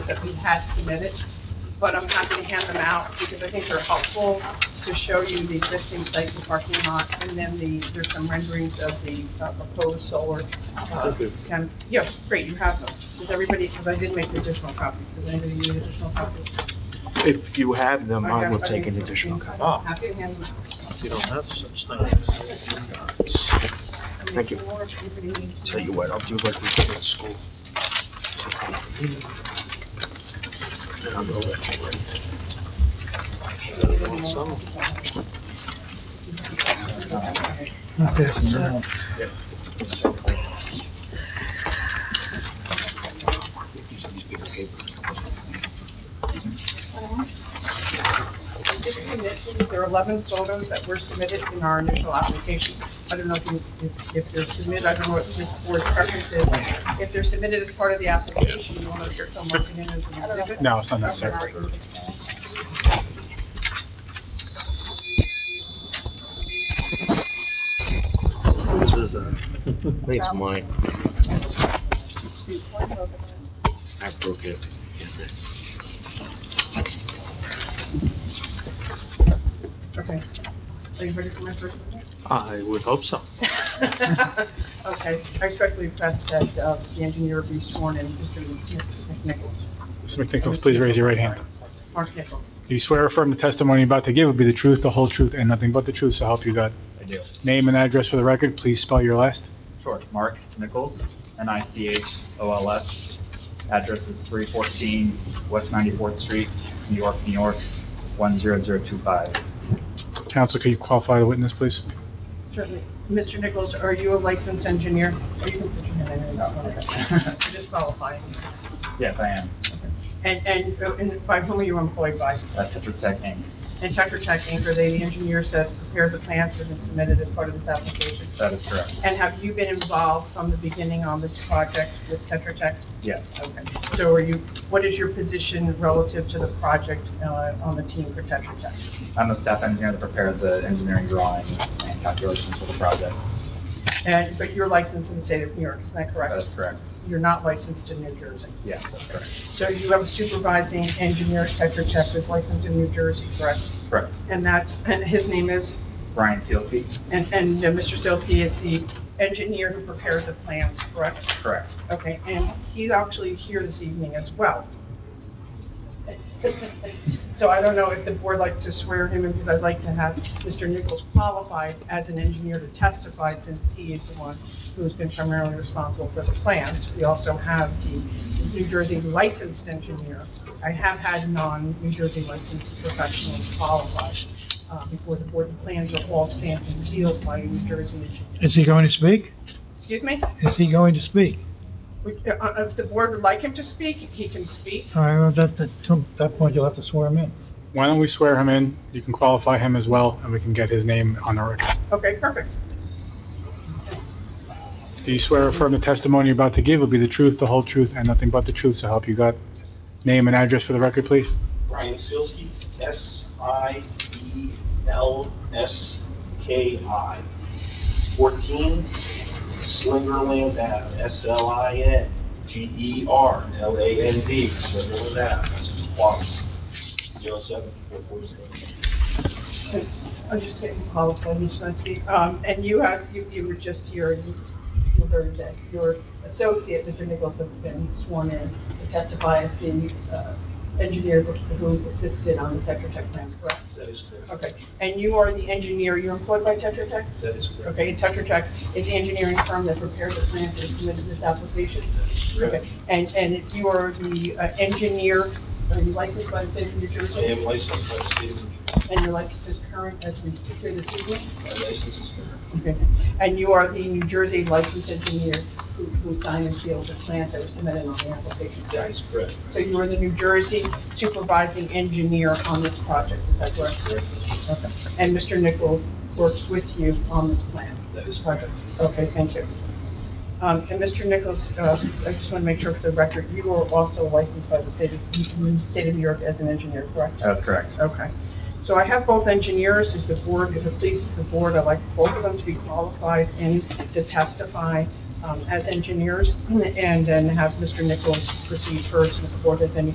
that we had submitted, but I'm happy to hand them out because I think they're helpful to show you the existing site and parking lot, and then the, there's some renderings of the uh, proposed solar. uh, Okay. can- Yes, great, you have them. Does everybody, because I did make additional copies, does anybody need additional copies? If you have them, I will got- take an think additional so. copy. copy. Happy to hand them out. You don't have such things. Thank you. Tell you what, I'll do like we did in school. And I'll go back to work. Six submissions, there are 11 photos that were submitted in our initial application. I don't know if you, if- if they're submitted, I don't know what this board's preference is. If they're submitted as part of the application, you want to just come working in as an exhibit? No, it's not necessary. Okay, great. This is a- I think it's mine. I broke it. Okay. Are you ready for my first one? I would hope so. Okay, I respectfully request that uh, the engineer be sworn in, Mr. Nichols. Mr. McNichols, please raise your right hand. Mark Nichols. Do you swear or affirm the testimony you're about to give will be the truth, the whole truth, and nothing but the truth, so help you God? I do. Name and address for the record, please spell your last. Sure. Mark Nichols, N-I-C-H-O-L-S. Address is 314 West 94th Street, New York, New York, 10025. Counsel, could you qualify the witness, please? Certainly. Mr. Nichols, are you a licensed engineer? Are you, you just qualifying. Yes, I am. And, and, uh, and by whom are you employed by? That's Tetra Tech Inc. And Tetra Tech Inc., are they the engineers that prepared the plans that have been submitted as part of this application? That is correct. And have you been involved from the beginning on this project with Tetra Tech? Yes. Okay. So are you, what is your position relative to the project, uh, on the team for Tetra Tech? I'm the staff engineer that prepared the engineering drawings and calculations for the project. And, but you're licensed in the state of New York, is that That correct? is correct. You're not licensed in New Jersey? Yes, that's correct. So you have a supervising engineer, Tetra Tech, who's licensed in New Jersey, correct? Correct. And that's, and his name is, Brian Sealsky? and, and uh, Mr. Stilsky is the engineer who prepares the plans, correct? Correct. Okay, and he's actually here this evening as well. So I don't know if the board likes to swear him in, because I'd like to have Mr. Nichols qualified as an engineer to testify, since he is the one who's been primarily responsible for the plans. We also have the New Jersey licensed engineer. I have had non-New Jersey licensed professionals qualified uh, before the board. The plans are all stamped and sealed by a New Jersey engineer. Is he going to speak? Excuse me? Is he going to speak? We- uh, uh, If the board would like him to speak, he can speak. All right, well, at that, that- to that point, you'll have to swear him in. Why don't we swear him in? You can qualify him as well, and we can get his name on the record. Okay, perfect. Do you swear or affirm the testimony you're about to give will be the truth, the whole truth, and nothing but the truth, so help you God? Name and address for the record, please. Brian Silsky, E S-I-E-L-S-K-I, 14 Slingerland Ave, E S-L-I-N-G-E-R-L-A-N-D, Slingerland Ave, Quox, 07440. I'm just getting qualified, Ms. Nancy. Um, and you asked, you, you were just here, and you you heard that your associate, Mr. Nichols, has been sworn in to testify as the, uh, engineer who who assisted on the Tetra Tech plans, correct? That is correct. Okay, and you are the engineer, you're employed by Tetra Tech? That is correct. Okay, and Tetra Tech is the engineering firm that prepared the plans and submitted this application? Okay, and, and you are the uh, engineer, are you licensed by the state of New Jersey? I am licensed by the state of New Jersey. And your license is current as we speak here this evening? My license is current. Okay. And you are the New Jersey licensed engineer who, who signed and sealed the plans that were submitted on the application, That correct? is correct. So you are the New Jersey supervising engineer on this project, is that correct? Okay. And Mr. Nichols works with you on this plan? That is correct. Okay, thank you. Um, and Mr. Nichols, uh, I just want to make sure for the record, you are also licensed by the state of, state of New York as an engineer, correct? That is correct. Okay. So I have both engineers, if the board, if it pleases the board, I'd like both of them to be qualified and to testify um, as engineers, and then have Mr. Nichols proceed first, if the board has any